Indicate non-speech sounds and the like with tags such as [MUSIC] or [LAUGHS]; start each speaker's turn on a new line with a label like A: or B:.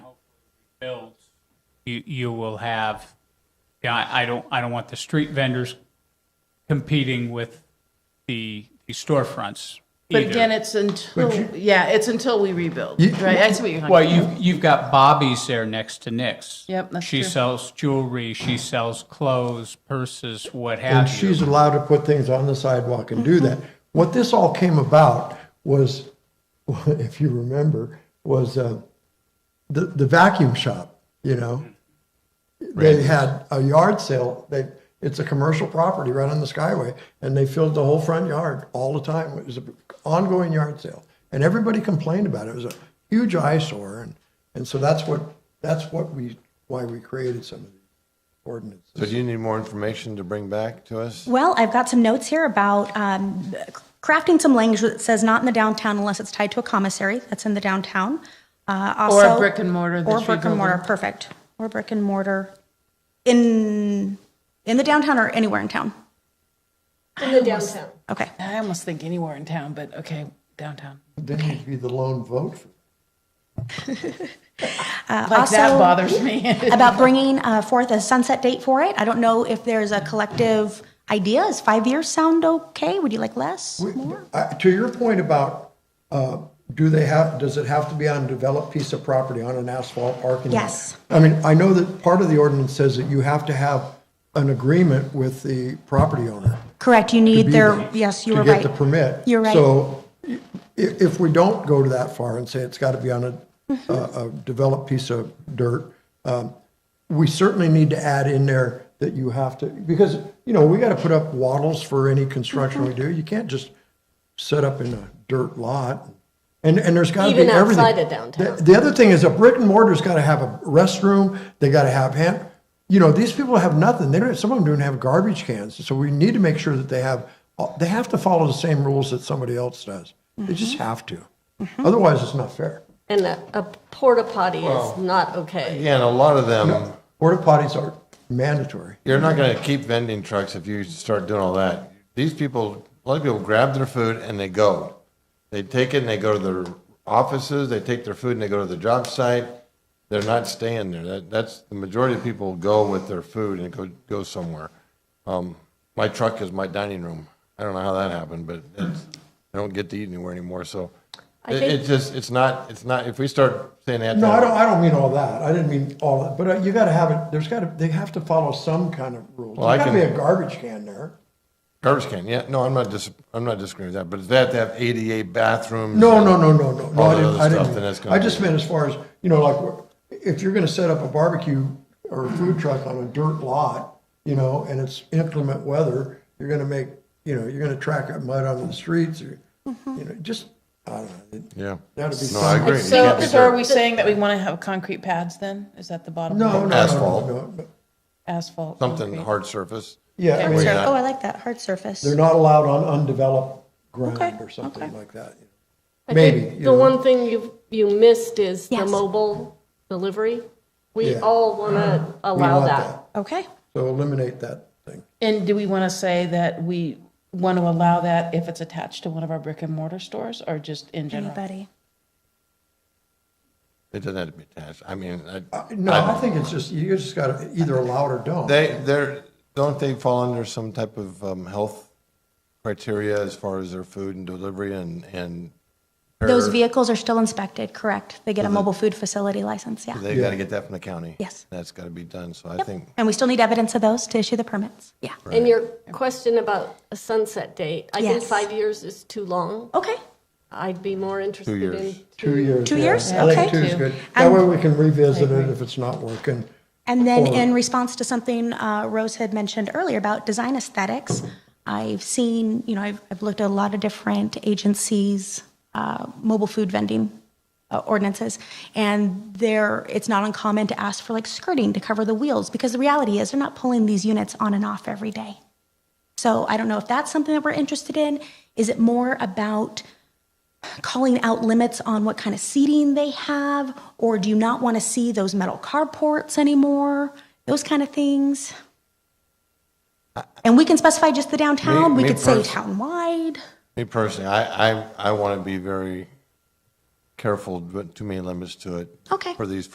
A: built, you, you will have, yeah, I- I don't, I don't want the street vendors competing with the the storefronts
B: But
A: either.
B: again, it's until, yeah, it's until we rebuild, right? I see what you're
A: Well,
B: talking
A: you, you've got Bobby's there next to Nick's.
B: Yep, that's
A: She
B: true.
A: sells jewelry, she sells clothes, purses, what
C: And
A: have
C: she's
A: you.
C: allowed to put things on the sidewalk and do that. What this all came about was, [LAUGHS] if you remember, was uh, the, the vacuum shop, you know? They had a yard sale, they, it's a commercial property right on the Skyway, and they filled the whole front yard all the time. It was an ongoing yard sale. And everybody complained about it. It was a huge eyesore, and, and so that's what, that's what we, why we created some of these ordinances.
D: So do you need more information to bring back to us?
E: Well, I've got some notes here about um, crafting some language that says not in the downtown unless it's tied to a commissary. That's in the downtown. Uh,
B: Or a
E: also-
B: brick and mortar that
E: Or
B: you're
E: brick and mortar,
B: building.
E: perfect. Or brick and mortar in, in the downtown or anywhere in town?
F: In the downtown.
E: Okay.
G: I almost think anywhere in town, but okay, downtown.
C: Then you'd be the lone vote. for
G: Like that
E: also-
G: bothers [LAUGHS] me.
B: [LAUGHS]
E: About bringing uh, forth a sunset date for it. I don't know if there's a collective idea. Is five years sound okay? Would you like less?
C: We- I- To your point about, uh, do they have, does it have to be on a developed piece of property, on an asphalt parking lot?
E: Yes.
C: I mean, I know that part of the ordinance says that you have to have an agreement with the property owner.
E: Correct, you
C: to
E: need
C: be
E: their,
C: there,
E: yes, you were
C: To
E: right.
C: get the permit.
E: You're right.
C: So i- if we don't go to that far and say it's got to be on a,
E: Mm-hmm.
C: a a developed piece of dirt, um, we certainly need to add in there that you have to, because, you know, we got to put up wattles for any construction we do. You can't just set up in a dirt lot. And, and there's got to be
F: Even
C: everything.
F: outside of downtown.
C: The- The other thing is a brick and mortar's got to have a restroom, they got to have hand, you know, these people have nothing. They don't, some of them don't have garbage cans. So we need to make sure that they have, they have to follow the same rules that somebody else does. They just
F: Mm-hmm.
C: have to. Otherwise, it's not fair.
F: And a, a porta potty is not okay.
D: Yeah, and a lot of them,
C: Porta potties are mandatory.
D: you're not gonna keep vending trucks if you start doing all that. These people, a lot of people grab their food and they go. They take it and they go to their offices, they take their food and they go to the job site. They're not staying there. That, that's, the majority of people go with their food and go, go somewhere. Um, my truck is my dining room. I don't know how that happened, but it's, I don't get to eat anywhere anymore, so.
F: I
D: It,
F: think-
D: it's just, it's not, it's not, if we start saying that.
C: No, I
D: then-
C: don't, I don't mean all that. I didn't mean all that, but uh, you got to have it, there's got to, they have to follow some kind of rules.
D: Well, I
C: There's got to be
D: can-
C: a garbage can there.
D: Garbage can, yeah, no, I'm not dis, I'm not disagreeing with that, but is that to have ADA bathrooms?
C: No,
D: and
C: no, no, no, no, no.
D: all
C: I
D: that
C: didn't,
D: other
C: I
D: stuff, then that's
C: didn't.
D: gonna
C: I just
D: be-
C: meant as far as, you know, like, if you're gonna set up a barbecue or a food truck on a dirt lot, you know, and it's inclement weather, you're gonna make, you know, you're gonna track up mud onto the streets or, you know, just, I don't know.
D: Yeah.
C: That'd be.
D: No, I
C: some-
D: agree. You
G: So,
D: can't be
G: so are
D: dirt.
G: we saying that we want to have concrete pads then? Is that the bottom?
C: No, no,
G: line?
C: no, no,
D: Asphalt.
C: no, no.
G: Asphalt.
D: Something
G: concrete.
D: hard surface.
C: Yeah, I
D: Where
C: mean,
D: you at?
E: Oh, I like that, hard surface.
C: they're not allowed on undeveloped
G: Okay,
C: ground or something
G: okay.
C: like that.
F: I
C: Maybe,
F: think
C: you
F: The
C: know.
F: one thing you, you missed is the
E: Yes.
F: mobile delivery. We
C: Yeah. Uh-huh.
F: all want to
C: We
F: allow
C: want
F: that.
E: Okay,
C: So eliminate that thing.
G: And do we want to say that we want to allow that if it's attached to one of our brick and mortar stores or just in general?
E: anybody?
D: It doesn't have to be attached. I mean,
C: Uh,
D: I.
C: No, I think it's just, you just gotta either allow it or don't.
D: They, they're, don't they fall under some type of, um, health criteria as far as their food and delivery and, and?
E: Those
D: or
E: vehicles are still inspected, correct? They get a mobile food facility license, yeah.
D: They gotta get that from the county.
E: Yes.
D: That's gotta be done, so I
E: Yep.
D: think,
E: And we still need evidence of those to issue the permits, yeah.
F: And your question about a sunset date, I think
E: Yes.
F: five years is too long.
E: Okay,
F: I'd be more interested
D: years.
F: in.
C: Two years.
E: Two
C: yeah.
E: years?
C: I think
E: Okay.
C: two is
G: Two.
C: good. That
E: And-
C: way we can revisit it if it's not working.
E: and then
C: Or-
E: in response to something uh, Rose had mentioned earlier about design aesthetics, I've seen, you know, I've, I've looked at a lot of different agencies' uh, mobile food vending uh, ordinances, and there, it's not uncommon to ask for like skirting to cover the wheels, because the reality is, they're not pulling these units on and off every day. So I don't know if that's something that we're interested in. Is it more about calling out limits on what kind of seating they have, or do you not want to see those metal carports anymore? Those kind of things. And we can specify just the downtown.
D: Me-
E: we
D: me
E: could say
D: pers-
E: townwide.
D: me personally, I, I, I wanna be very careful, but too many limits to it.
E: Okay.
D: For these